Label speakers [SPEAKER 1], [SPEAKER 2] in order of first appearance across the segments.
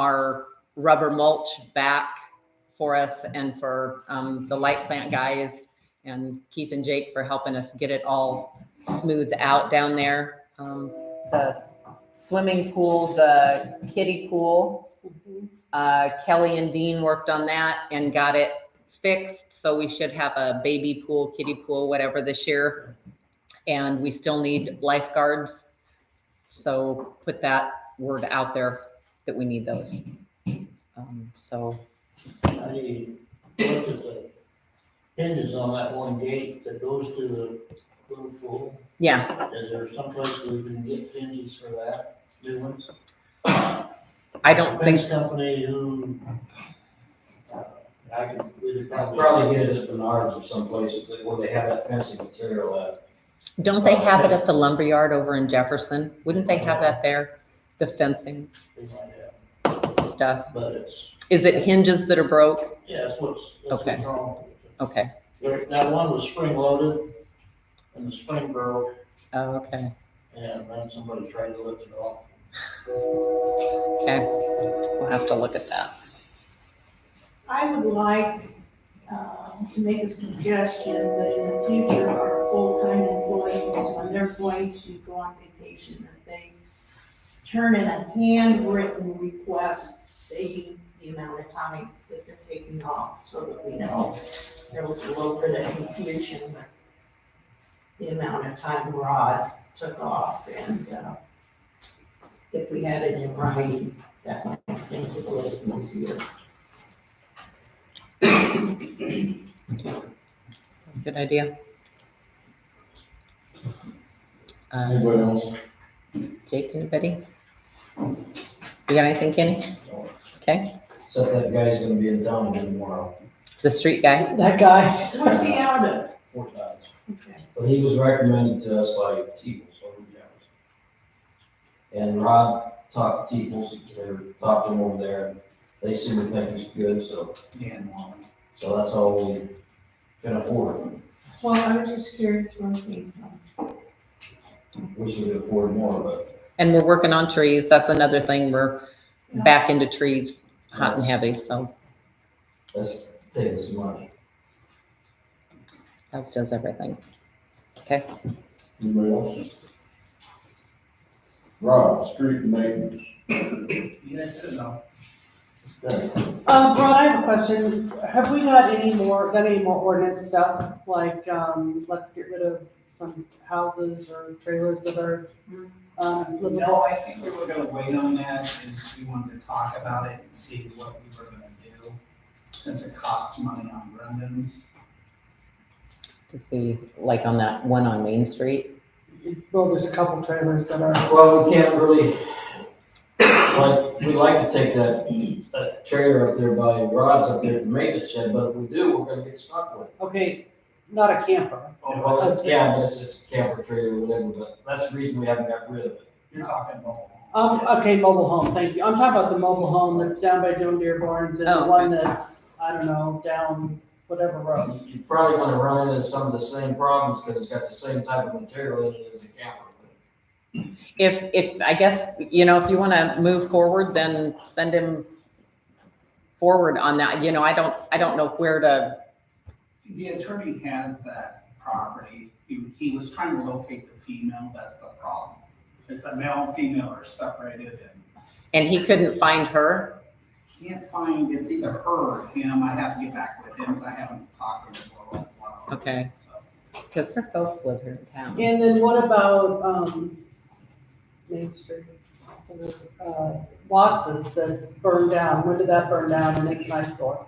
[SPEAKER 1] our rubber mulch back for us and for um, the light plant guys and Keith and Jake for helping us get it all smoothed out down there. Um, the swimming pool, the kiddie pool, uh, Kelly and Dean worked on that and got it fixed. So we should have a baby pool, kiddie pool, whatever this year. And we still need lifeguards. So put that word out there that we need those. Um, so
[SPEAKER 2] I mean, look at the hinges on that one gate that goes to the little pool.
[SPEAKER 1] yeah,
[SPEAKER 2] Is there someplace we can get hinges for that, new ones?
[SPEAKER 1] I don't think
[SPEAKER 2] Fence company who, uh, I can, we could probably.
[SPEAKER 3] Probably get it at Menards or someplace where they have that fencing material uh, at.
[SPEAKER 1] Don't they have it at the lumberyard over in Jefferson? Wouldn't they have that there? The fencing
[SPEAKER 2] They might have,
[SPEAKER 1] stuff?
[SPEAKER 2] But it's,
[SPEAKER 1] Is it hinges that are broke?
[SPEAKER 2] yeah, that's what's, that's
[SPEAKER 1] Okay.
[SPEAKER 2] what's wrong. with it.
[SPEAKER 1] Okay,
[SPEAKER 2] There, that one was spring loaded and the spring broke
[SPEAKER 1] oh, okay,
[SPEAKER 2] and then somebody tried to lift it off.
[SPEAKER 1] okay. We'll have to look at that.
[SPEAKER 4] I would like um, to make a suggestion that in the future, our full-time employees, when they're going to go on vacation, that they turn in a handwritten request stating the amount of time that they're taking off, so that we know there was a little bit of confusion with the amount of time Rod took off, and uh, if we had it in writing, that might make it a little easier.
[SPEAKER 1] Good idea. Uh,
[SPEAKER 3] Anybody else?
[SPEAKER 1] Jake, anybody? You got anything, Kenny? Okay,
[SPEAKER 3] Except that guy's gonna be in town again tomorrow,
[SPEAKER 1] the street guy?
[SPEAKER 5] That guy.
[SPEAKER 4] Where's he out of?
[SPEAKER 3] four times.
[SPEAKER 4] Okay.
[SPEAKER 3] But he was recommended to us by Teeples over in Jefferson. And Rod talked to Teeples, they were talking over there, and they seemed to think he's good, so, so that's all we can afford.
[SPEAKER 4] Well, I was just curious where he from.
[SPEAKER 3] Wish we could afford more, but.
[SPEAKER 1] And we're working on trees. That's another thing. We're back into trees, hot and heavy, so
[SPEAKER 3] That's taking some money.
[SPEAKER 1] as does everything.
[SPEAKER 6] Anybody else? Rob, street maintenance.
[SPEAKER 7] Yes and no.
[SPEAKER 5] Um, Rod, I have a question. Have we got any more, got any more ordinance stuff? Like, um, let's get rid of some houses or trailers that are, um, livable.
[SPEAKER 7] No, I think we were gonna wait on that, is we wanted to talk about it and see what we were gonna do, since it costs money on Brendan's.
[SPEAKER 1] To see, like on that one on Main Street.
[SPEAKER 5] Well, there's a couple trailers that are,
[SPEAKER 3] Well, we can't really, like, we'd like to take that, that trailer up there by Rod's up there to maintenance shed, but if we do, we're gonna get stuck with it.
[SPEAKER 5] okay, not a camper.
[SPEAKER 3] Oh, Well, Yeah, but it's, it's a camper trailer or whatever, but that's the reason we haven't got rid of it.
[SPEAKER 7] You're talking about.
[SPEAKER 5] Um, okay, mobile home, thank you. I'm talking about the mobile home that's down by Joan Deere Barnes and
[SPEAKER 1] Oh,
[SPEAKER 5] the
[SPEAKER 1] okay.
[SPEAKER 5] one that's, I don't know, down whatever road.
[SPEAKER 3] You probably gonna run into some of the same problems, cause it's got the same type of material in it as a camper.
[SPEAKER 1] If, if, I guess, you know, if you want to move forward, then send him forward on that. You know, I don't, I don't know where to,
[SPEAKER 7] The attorney has that property, he, he was trying to locate the female, that's the problem. Is the male and female are separated and
[SPEAKER 1] and he couldn't find her.
[SPEAKER 7] can't find, it's either her or him, I have to get back with him, 'cause I haven't talked to him for a while.
[SPEAKER 1] Okay. Because their folks live here in town.
[SPEAKER 5] And then what about, um, Main Street, So there's, uh, Watson's that's burned down, when did that burn down and it's an eyesore?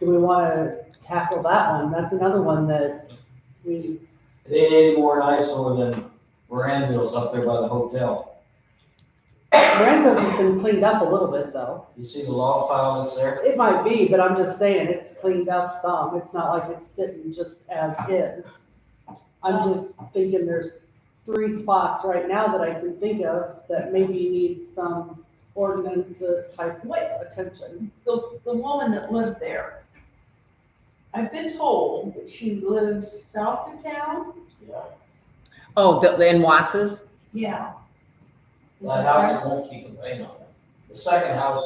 [SPEAKER 5] Do we wanna tackle that one? That's another one that we,
[SPEAKER 3] It ain't any more an eyesore than Randville's up there by the hotel.
[SPEAKER 5] Randall's has been cleaned up a little bit though.
[SPEAKER 3] You see the log pile that's there?
[SPEAKER 5] It might be, but I'm just saying, it's cleaned up some, it's not like it's sitting just as is. I'm just thinking there's three spots right now that I can think of that maybe need some ordinance uh, type
[SPEAKER 4] What,
[SPEAKER 5] attention.
[SPEAKER 4] the, the woman that lived there, I've been told that she lives south of town?
[SPEAKER 3] Yeah.
[SPEAKER 1] Oh, the, in Watts's?
[SPEAKER 4] Yeah. Is
[SPEAKER 3] That
[SPEAKER 4] that right?
[SPEAKER 3] house won't keep the paint on it. The second house